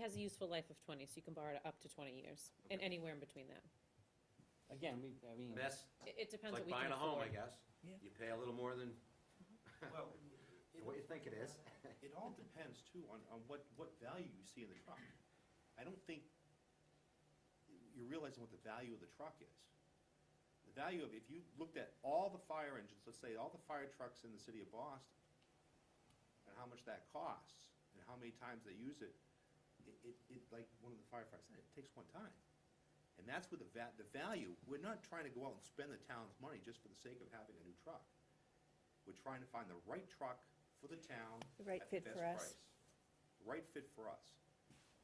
has a useful life of twenty, so you can borrow it up to twenty years, and anywhere in between that. Again, we, I mean, That's It, it it's depends what like we can buying a home, I afford. guess. Yeah. You pay a little more than Well, it- what you think it is. It all depends too on, on what, what value you see in the truck. I don't think you're realizing what the value of the truck is. The value of, if you looked at all the fire engines, let's say all the fire trucks in the city of Boston, and how much that costs, and how many times they use it, it, it, it, like one of the firefighters said, it takes one time. And that's where the va, the value, we're not trying to go out and spend the town's money just for the sake of having a new truck. We're trying to find the right truck for the town. The right at the fit for us. best price. Right fit for us.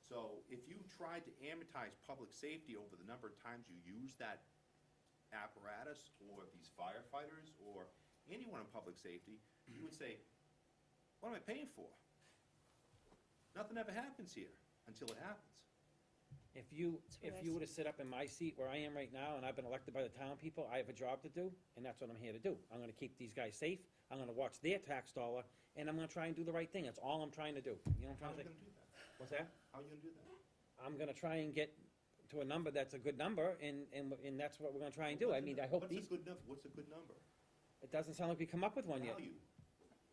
So if you tried to amortize public safety over the number of times you use that apparatus or these firefighters or anyone in public safety, you would say, what am I paying for? Nothing ever happens here until it happens. if you, That's what if I you were to sit up in my seat where I am right now, and I've been elected by the town people, I have a job to do, and that's what I'm here to do. I'm gonna keep these guys safe, I'm gonna watch their tax dollar, and I'm gonna try and do the right thing, that's all I'm trying to do, you know what How I'm are trying to you gonna say? do that? What's that? How are you gonna do that? I'm gonna try and get to a number that's a good number, and, and, and that's what we're gonna try and do, I What's a- mean, I hope what's a these, good num- What's a good number? it doesn't sound like we come up with one yet. Value.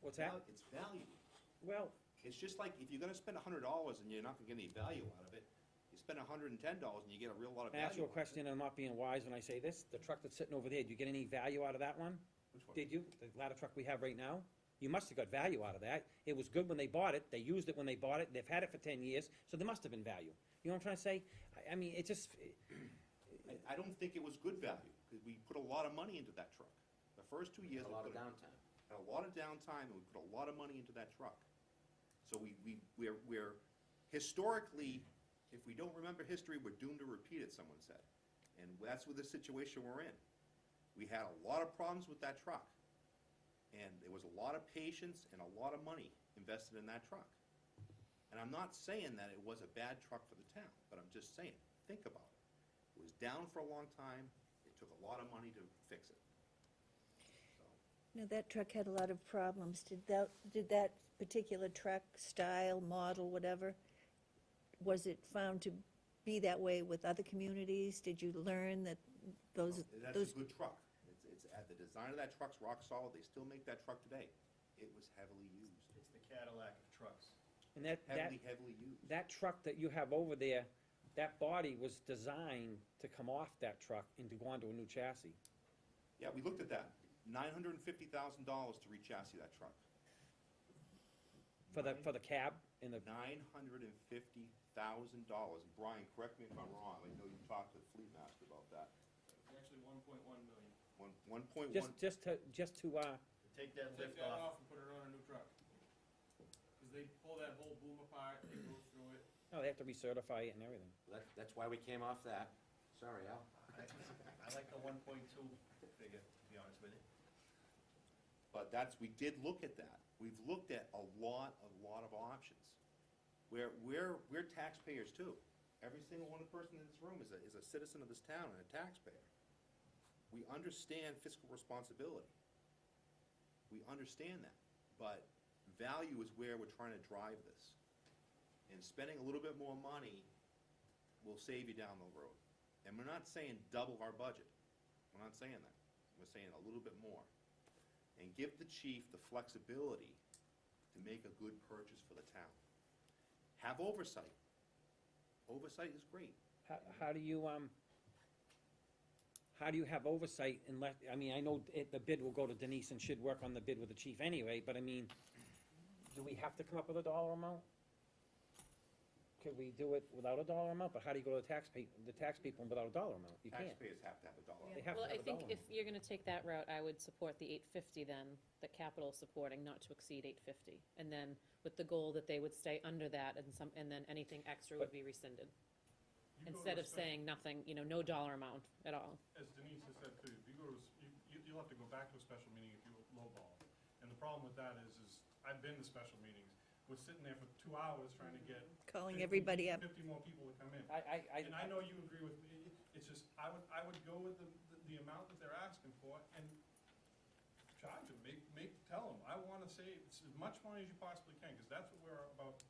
What's that? Val- It's value. Well, It's just like, if you're gonna spend a hundred dollars and you're not gonna get any value out of it, you spend a hundred and ten dollars and you get a real lot of I value. ask you a out of it. question, and I'm not being wise when I say this, the truck that's sitting over there, do you get any value out of that one? Which one? Did you, the ladder truck we have right now? You must have got value out of that. It was good when they bought it, they used it when they bought it, they've had it for ten years, so there must have been value. You know what I'm trying to say? I, I mean, it just, I, I don't think it was good value, because we put a lot of money into that truck. The first two years. A we lot of put downtime. had a lot of downtime, and we put a lot of money into that truck. So we, we, we're, we're, historically, if we don't remember history, we're doomed to repeat it, someone said. And that's what the situation we're in. We had a lot of problems with that truck. And there was a lot of patience and a lot of money invested in that truck. And I'm not saying that it was a bad truck for the town, but I'm just saying, think about it. It was down for a long time, it took a lot of money to fix it. So. No, that truck had a lot of problems. Did that, did that particular truck, style, model, whatever, was it found to be that way with other communities? Did you learn that those, That's those, a good truck. It's, it's, at the design of that truck's rock solid. They still make that truck today. It was heavily used, It's the Cadillac of trucks. and that, that, heavily, heavily used. that truck that you have over there, that body was designed to come off that truck and to go onto a new chassis. Yeah, we looked at that. Nine hundred and fifty thousand dollars to re-chassis that truck. For the, for the cab and the, Nine hundred and fifty thousand dollars. Brian, correct me if I'm wrong. I know you talked to the Fleet Master about that. It's actually one point one million. One, one point one, just, just to, just to, uh, Take that Take lift that off. off and put it on a new truck. Cause they pull that whole boom apart, they go through it. no, oh, they have to recertify it and everything. That, that's why we came off that. Sorry, Al. I I like the one point two figure, to be honest with you. but that's, we did look at that. We've looked at a lot, a lot of options. We're, we're, we're taxpayers too. Every single one person in this room is a, is a citizen of this town and a taxpayer. We understand fiscal responsibility. We understand that, but value is where we're trying to drive this. And spending a little bit more money will save you down the road. And we're not saying double our budget. We're not saying that. We're saying a little bit more. And give the chief the flexibility to make a good purchase for the town. Have oversight. Oversight is great. How, how do you, um, how do you have oversight and let, I mean, I know it, the bid will go to Denise and should work on the bid with the chief anyway, but I mean, do we have to come up with a dollar amount? Could we do it without a dollar amount, but how do you go to the tax pe- the tax people without a dollar amount? You can't. Taxpayers have to have a dollar. They have to Well, have I a think dollar if you're gonna take that route, I would support the eight fifty then, that capital is supporting not to exceed eight fifty. And then with the goal that they would stay under that and some, and then anything extra would But- be rescinded. You go to Instead a of special- saying nothing, you know, no dollar amount at all. As Denise has said too, if you go to, a s- you, you- you'll have to go back to a special meeting if you lowball. And the problem with that is, is I've been to special meetings, we're sitting there for two hours trying to get. calling 50 everybody up? Fifty more people to come in. amount. I, I, And I know you agree with me, it's just, I would, I would go with the, the- the amount that they're asking for and charge them, make, make, tell them, I wanna save as much money as you possibly can, cause that's what we're about